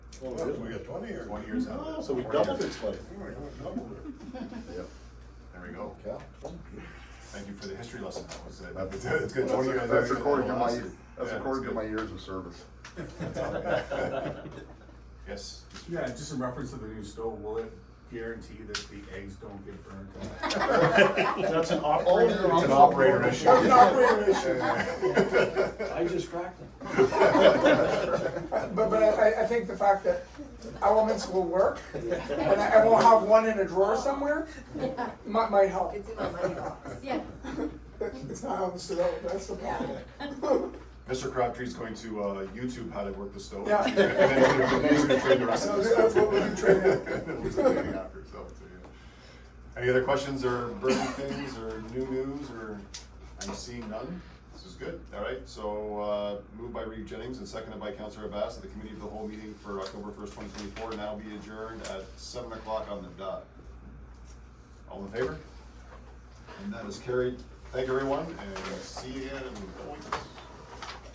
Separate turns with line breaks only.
Well,
Well,
really?
we got twenty here.
Twenty years out.
Oh, so we
Twenty
doubled
years.
its life.
Oh, we doubled it.
Yep, there we go.
Yeah.
Thank you for the history lesson, that was, uh, that was- it's good.
That's,
20 years.
that's according to my, that's
Yeah,
according to
good.
my years of service.
Yes.
Yeah, just in reference to the new stove, will it guarantee that the eggs don't get burnt?
That's an operator.
Oh,
It's an operator issue.
That's an operator
I just cracked them.
But, but I, I- I think the fact that elements will work, and I, I won't have one in a drawer somewhere, might, might help.
It's in my money box. Yeah.
It's not how this developed, that's the problem.
Mr. Crabtree's going to, uh, YouTube how to work the stove.
Yeah.
And then he's gonna train the rest of us.
So that's what we can train after.
We'll be training after, so, so, yeah. Any other questions or burning things or new news or, I'm seeing none? This is good, all right, so, uh, moved by Reeve Jennings and seconded by Counselor Abbas at the committee of the whole meeting for October first, twenty twenty-four, now be adjourned at seven o'clock on the dot. All in favor? And that is carried. Thank you, everyone, and see you again in a couple weeks.